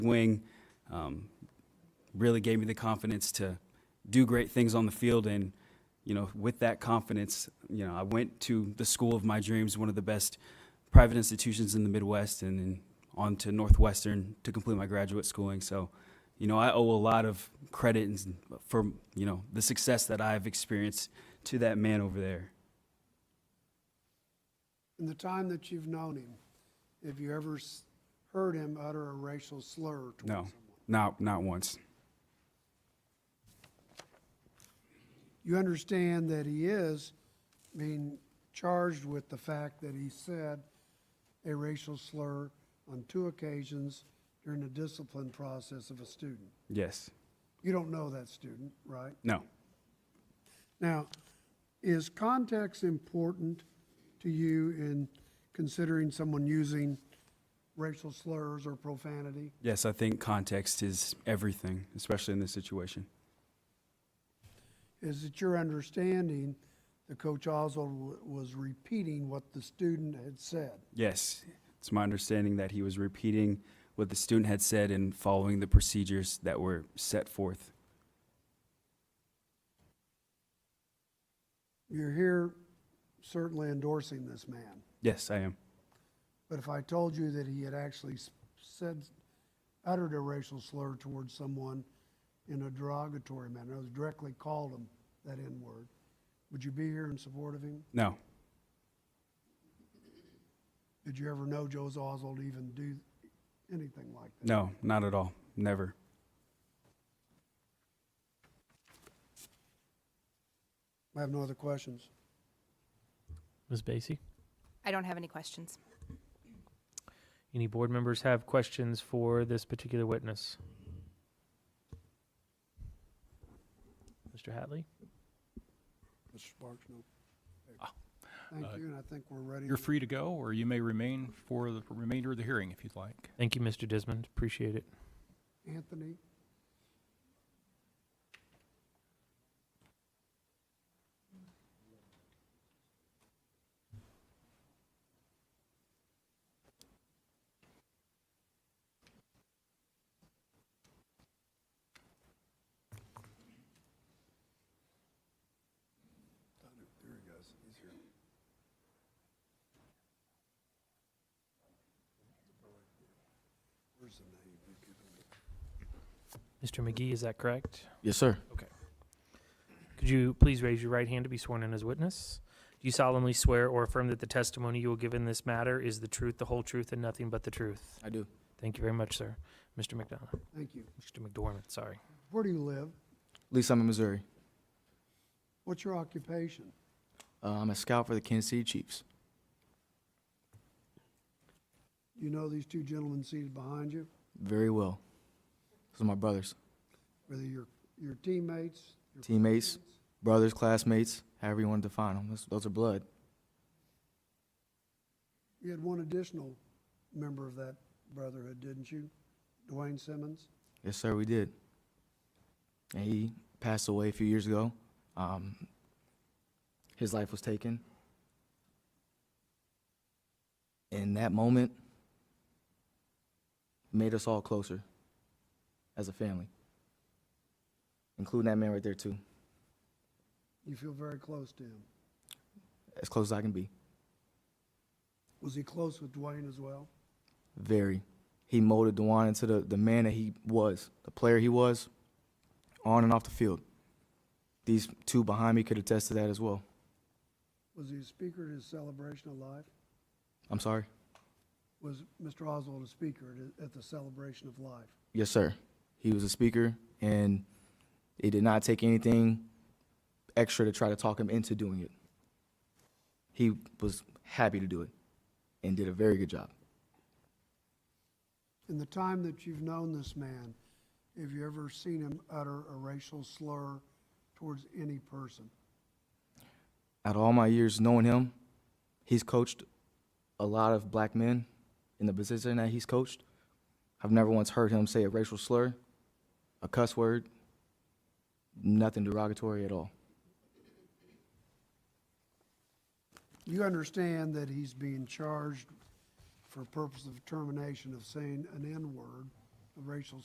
wing. Um, really gave me the confidence to do great things on the field. And, you know, with that confidence, you know, I went to the school of my dreams, one of the best private institutions in the Midwest, and then on to Northwestern to complete my graduate schooling. So, you know, I owe a lot of credit and- for, you know, the success that I've experienced to that man over there. In the time that you've known him, have you ever s- heard him utter a racial slur towards No, someone? not, not once. You understand that he is being charged with the fact that he said a racial slur on two occasions during the discipline process of a student. Yes. You don't know that student, right? No. Now, is context important to you in considering someone using racial slurs or profanity? Yes, I think context is everything, especially in this situation. Is it your understanding that Coach Oswald w- was repeating what the student had said? Yes, it's my understanding that he was repeating what the student had said and following the procedures that were set forth. You're here certainly endorsing this man, Yes, I am. but if I told you that he had actually s- said, uttered a racial slur towards someone in a derogatory manner, was directly called him that N-word, would you be here in support of him? No, Did you ever know Joe Oswald even do anything like that? no, not at all. Never. I have no other questions. Ms. Basie? I don't have any questions. Any board members have questions for this particular witness? Mr. Hatley? Mr. Sparks, no. Thank you, and I think we're ready. You're free to go, or you may remain for the remainder of the hearing if you'd like. Thank you, Mr. Desmond. Appreciate it. Anthony? Mr. McGee, is that correct? Yes, sir. Could you please raise your right hand to be sworn in as witness? Do you solemnly swear or affirm that the testimony you will give in this matter is the truth, the whole truth, and nothing but the truth? I do. Thank you very much, sir. Mr. McDonough, Thank you. Mr. McDormand, sorry. Where do you live? Lee Summit, Missouri. What's your occupation? Uh, I'm a scout for the Kansas City Chiefs. You know these two gentlemen seated behind you, Very well. Those are my brothers, whether you're your teammates? your Teammates. friends? brothers, classmates, however you want to define them. Those, those are blood. You had one additional member of that brotherhood, didn't you? Dwayne Simmons? Yes, sir. We did. And he passed away a few years ago. Um, his life was taken. And that moment made us all closer as a family, including that man right there too, You feel very close to him. as close as I can be. Was he close with Dwayne as well? Very. He molded Dewan into the, the man that he was, the player he was, on and off the field. These two behind me could attest to that as well. Was he a speaker at his celebration of life? I'm sorry? Was Mr. Oswald a speaker at- at the celebration of life? Yes, sir. He was a speaker, and it did not take anything extra to try to talk him into doing it. He was happy to do it and did a very good job. In the time that you've known this man, have you ever seen him utter a racial slur towards any person? out of all my years knowing him, he's coached a lot of black men in the position that he's coached. I've never once heard him say a racial slur, a cuss word, nothing derogatory at all. You understand that he's being charged for purpose of termination of saying an N-word of racial